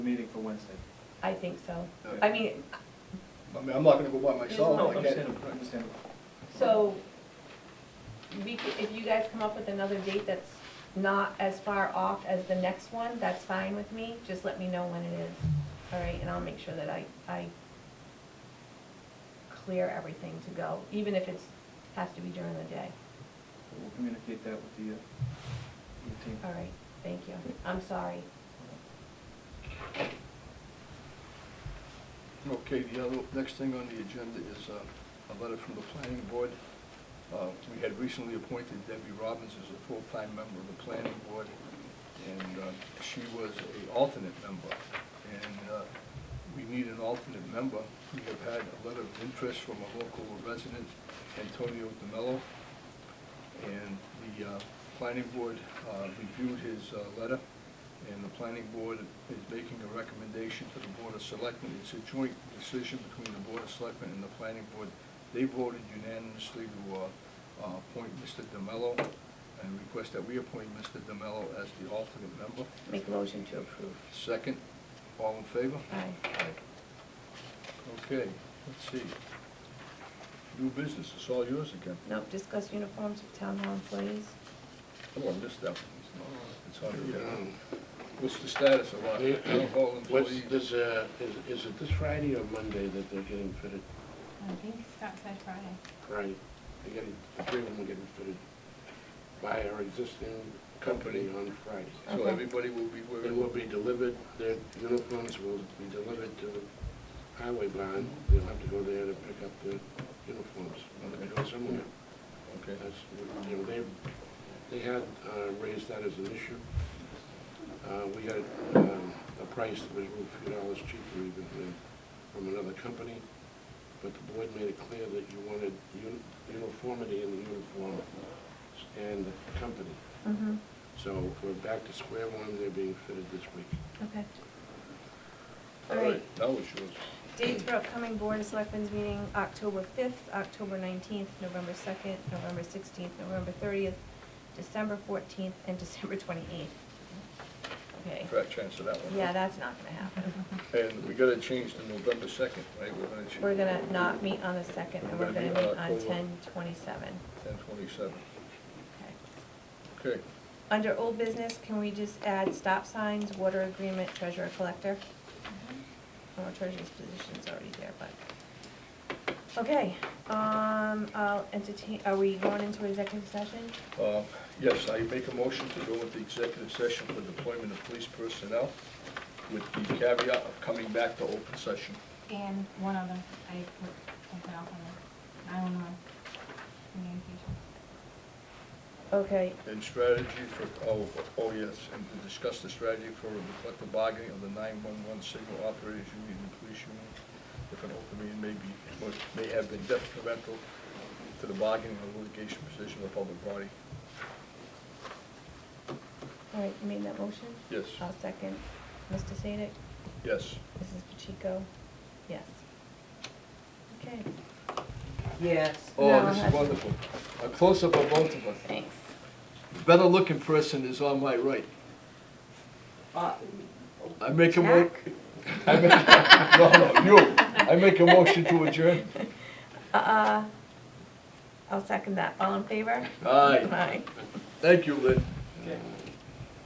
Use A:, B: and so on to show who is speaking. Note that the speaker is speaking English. A: for Wednesday.
B: I think so.
A: Okay.
B: I mean,
C: I mean, I'm not gonna go by myself, I can't.
A: Understandable, understandable.
B: so, we, c- if you guys come up with another date that's not as far off as the next one, that's fine with me, just let me know when it is, all right, and I'll make sure that I, I clear everything to go, even if it's, has to be during the day,
A: We'll communicate that with the, uh, with the team.
B: all right, thank you, I'm sorry.
C: Okay, the other, next thing on the agenda is uh, a letter from the planning board. Uh, We had recently appointed Debbie Robbins as a full-time member of the planning board, and uh, she was a alternate member. And uh, we need an alternate member. We have had a letter of interest from a local resident, Antonio DeMello, and the uh, planning board uh, reviewed his uh, letter, and the planning board is making a recommendation to the Board of Selectmen. It's a joint decision between the Board of Selectmen and the planning board. They voted unanimously to uh, uh, appoint Mr. DeMello and request that we appoint Mr. DeMello as the alternate member.
B: Make a motion to approve.
C: Second, all in favor?
B: Aye.
C: Okay, let's see. New business, it's all yours again.
B: Nope, discuss uniforms of town hall employees.
C: Oh, I missed that one. It's on the, what's the status of our town hall
D: What's,
C: employees?
D: this, uh, is, is it this Friday or Monday that they're getting fitted?
E: I think Scott said Friday.
D: Friday. They're getting, the three of them are getting fitted by our existing company on Friday.
C: So everybody will be
D: They will
C: wearing,
D: be delivered, their uniforms will be delivered to the highway barn. They'll have to go there to pick up their uniforms. They'll have to go somewhere.
C: okay,
D: That's, what- you know, they, they had uh, raised that as an issue. Uh, We got um, a price that was a few dollars cheaper even than from another company, but the board made it clear that you wanted uni- uniformity in the uniform and the company.
B: Mm-hmm,
D: So we're back to square one, they're being fitted this week.
B: okay.
C: all right, that was yours.
B: Dates for upcoming Board of Selectmen's meeting, October 5th, October 19th, November 2nd, November 16th, November 30th, December 14th, and December 28th. Okay,
C: Fair chance of that one.
B: yeah, that's not gonna happen.
C: And we gotta change to November second, right? We're gonna change.
B: We're gonna not meet on the 2nd, and we're gonna meet on 10/27.
C: Ten twenty-seven,
B: Okay.
C: okay.
B: Under old business, can we just add stop signs, water agreement, treasurer collector? Or treasurer's position's already there, but, okay, um, I'll entertain, are we going into executive session?
C: Uh, Yes, I make a motion to go into executive session for deployment of police personnel with the caveat of coming back to open session.
E: And one other, I put something else on there, nine-one-one communication.
B: Okay,
C: And strategy for, oh, oh, yes, and to discuss the strategy for the collective bargaining of the nine-one-one signal operators union and police union. If an open meeting may be, or may have been detrimental to the bargaining or litigation position of the public body.
B: all right, you made that motion?
C: Yes,
F: Oh.
B: I'll second. Mr. Sadik,
C: yes.
B: Mrs. Pacheco, yes. Okay,
F: Yes.
C: Oh,
B: No,
C: this is
B: that's-
C: wonderful. A close-up of both of us.
B: thanks.
C: Better-looking person is on my right.
F: Uh,
C: I make a mo-
F: Jack?
C: I make, no, no, you, I make a motion to adjourn.
B: Uh, I'll second that. All in favor?
C: Aye,
B: Aye.
C: thank you, Lynn.
A: Okay.